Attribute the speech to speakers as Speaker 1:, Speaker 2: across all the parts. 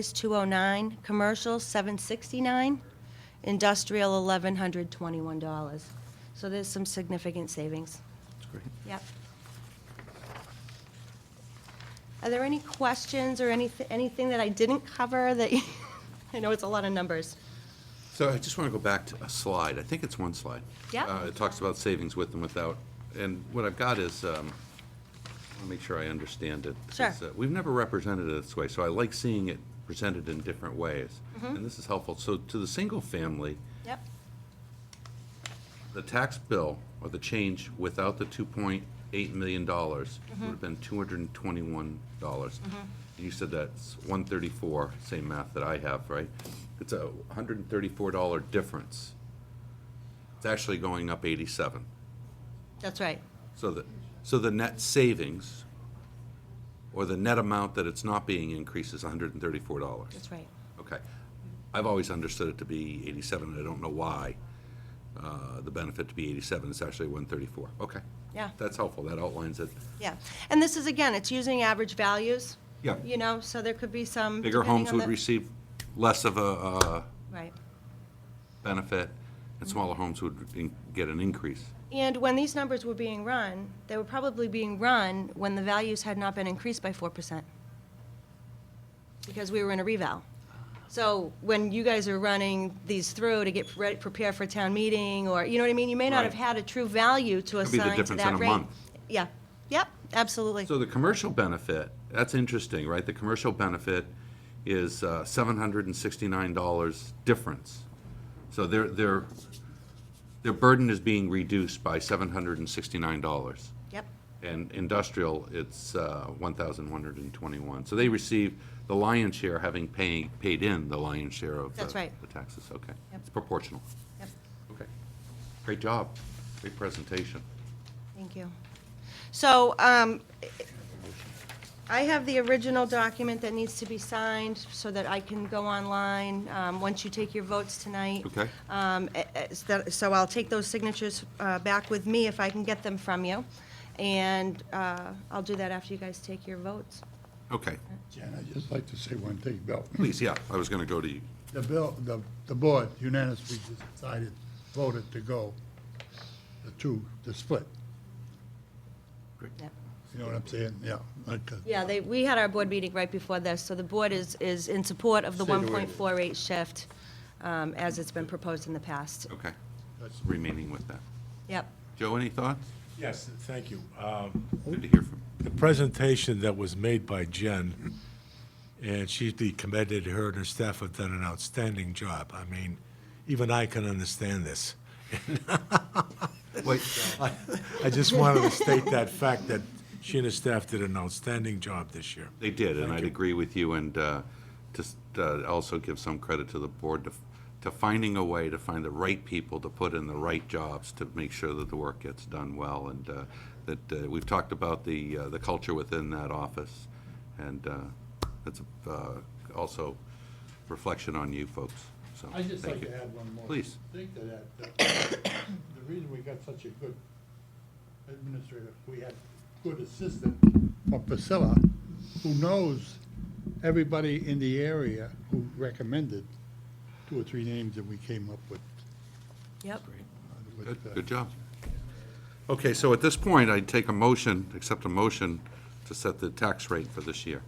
Speaker 1: is 209, commercial 769, industrial $1,121. So there's some significant savings.
Speaker 2: That's great.
Speaker 1: Yep. Are there any questions or anything, anything that I didn't cover that, you- I know it's a lot of numbers.
Speaker 2: So I just want to go back to a slide. I think it's one slide.
Speaker 1: Yeah.
Speaker 2: Uh, It talks about savings with and without. And what I've got is, um, I'll make sure I understand it.
Speaker 1: Sure.
Speaker 2: 'cause, uh, We've never represented it this way, so I like seeing it presented in different ways.
Speaker 1: Mm-hmm.
Speaker 2: And this is helpful. So to the single-family,
Speaker 1: Yep,
Speaker 2: the tax bill, or the change without the $2.8 million would have been $221. And You said that's 134, same math that I have, right? It's a $134 difference. It's actually going up 87.
Speaker 1: that's right.
Speaker 2: So the, so the net savings, or the net amount that it's not being increased is $134.
Speaker 1: That's right.
Speaker 2: Okay. I've always understood it to be 87, and I don't know why uh, the benefit to be 87 is actually 134. Okay.
Speaker 1: Yeah.
Speaker 2: That's helpful. That outlines it.
Speaker 1: Yeah, and this is, again, it's using average values.
Speaker 2: Yeah.
Speaker 1: You know, so there could be some.
Speaker 2: Bigger
Speaker 1: depending
Speaker 2: homes
Speaker 1: on
Speaker 2: would
Speaker 1: the-
Speaker 2: receive less of a uh,
Speaker 1: Right.
Speaker 2: benefit, and smaller homes would in- get an increase.
Speaker 1: And when these numbers were being run, they were probably being run when the values had not been increased by 4%. Because we were in a reval. So when you guys are running these through to get ready, prepare for town meeting, or, you know what I mean? You may not have
Speaker 2: Right.
Speaker 1: had a true value to
Speaker 2: Could be the
Speaker 1: assign to
Speaker 2: difference in
Speaker 1: that
Speaker 2: a
Speaker 1: rate.
Speaker 2: month.
Speaker 1: Yeah, yep, absolutely.
Speaker 2: So the commercial benefit, that's interesting, right? The commercial benefit is uh, $769 difference. So their, their, their burden is being reduced by $769.
Speaker 1: Yep,
Speaker 2: and industrial, it's uh, 1,121. So they receive the lion's share, having paying, paid in the lion's share of the
Speaker 1: That's right.
Speaker 2: the taxes, okay.
Speaker 1: Yep.
Speaker 2: It's proportional,
Speaker 1: yep,
Speaker 2: okay. Great job, great presentation.
Speaker 1: thank you. So, um, I have the original document that needs to be signed so that I can go online, um, once you take your votes tonight.
Speaker 2: Okay.
Speaker 1: Um, eh, eh, so that- So I'll take those signatures uh, back with me if I can get them from you, and uh, I'll do that after you guys take your votes.
Speaker 2: Okay,
Speaker 3: Jen, I'd just like to say one thing, Bill.
Speaker 2: please, yeah, I was going to go to you.
Speaker 3: The bill, the, the board unanimously decided, voted to go the two, the split.
Speaker 1: Yep.
Speaker 3: You know what I'm saying? Yeah. like, uh,
Speaker 1: Yeah, they, we had our board meeting right before this, so the board is, is in support of the
Speaker 3: Stay away.
Speaker 1: 1.48 shift um, as it's been proposed in the past.
Speaker 2: Okay,
Speaker 3: that's-
Speaker 2: remaining with that.
Speaker 1: Yep,
Speaker 2: Joe, any thoughts?
Speaker 4: Yes, thank you. Um,
Speaker 2: Good to hear from you.
Speaker 4: The presentation that was made by Jen, and she's be commended, her and her staff have done an outstanding job. I mean, even I can understand this.
Speaker 2: Wait,
Speaker 4: I I just wanted to state that fact that she and her staff did an outstanding job this year.
Speaker 2: They did, and I'd agree with you, and uh, just uh, also give some credit to the board to, to finding a way to find the right people to put in the right jobs to make sure that the work gets done well, and uh, that, uh, we've talked about the, uh, the culture within that office, and uh, that's uh, also reflection on you folks, so.
Speaker 5: I'd just
Speaker 2: thank
Speaker 5: like to
Speaker 2: you.
Speaker 5: add one more.
Speaker 2: Please.
Speaker 5: Think to that, uh, that the reason we got such a good administrator, we had good assistant from Priscilla, who knows everybody in the area who recommended two or three names that we came up with.
Speaker 1: yep.
Speaker 5: uh, with,
Speaker 2: Good,
Speaker 5: uh,
Speaker 2: good job. Okay, so at this point, I'd take a motion, accept a motion to set the tax rate for this year.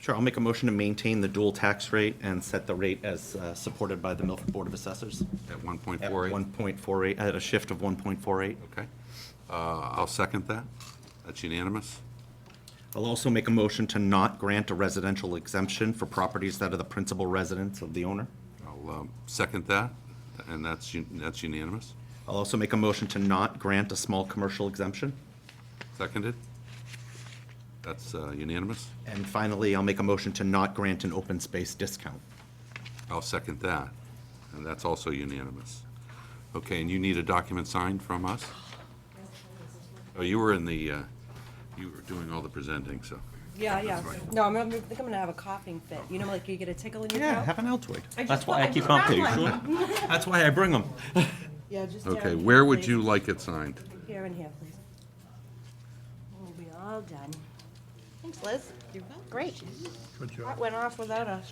Speaker 6: Sure, I'll make a motion to maintain the dual tax rate and set the rate as uh, supported by the Milford Board of Assessors
Speaker 2: At one point
Speaker 6: at
Speaker 2: four eight?
Speaker 6: 1.48, at a shift of 1.48.
Speaker 2: Okay. Uh, I'll second that. That's unanimous.
Speaker 6: I'll also make a motion to not grant a residential exemption for properties that are the principal residence of the owner.
Speaker 2: I'll um, second that, and that's un- that's unanimous.
Speaker 6: I'll also make a motion to not grant a small commercial exemption.
Speaker 2: Seconded? That's uh, unanimous.
Speaker 6: And finally, I'll make a motion to not grant an open space discount.
Speaker 2: I'll second that, and that's also unanimous. Okay, and you need a document signed from us? Oh, you were in the, uh, you were doing all the presenting, so.
Speaker 1: Yeah, yeah.
Speaker 2: right.
Speaker 1: No, I'm, I think I'm gonna have a coughing fit. You know, like you get a tickle in your throat?
Speaker 6: Have an Altoid.
Speaker 1: I just
Speaker 6: That's why I
Speaker 1: thought-
Speaker 6: keep on to you. sure? That's why I bring them.
Speaker 1: Yeah, just um, down
Speaker 2: Okay,
Speaker 1: here,
Speaker 2: where would
Speaker 1: please.
Speaker 2: you like it signed?
Speaker 1: Here and here, please. We'll be all done. Thanks, Liz.
Speaker 7: welcome.
Speaker 1: Great.
Speaker 5: Good job.
Speaker 1: That went off without a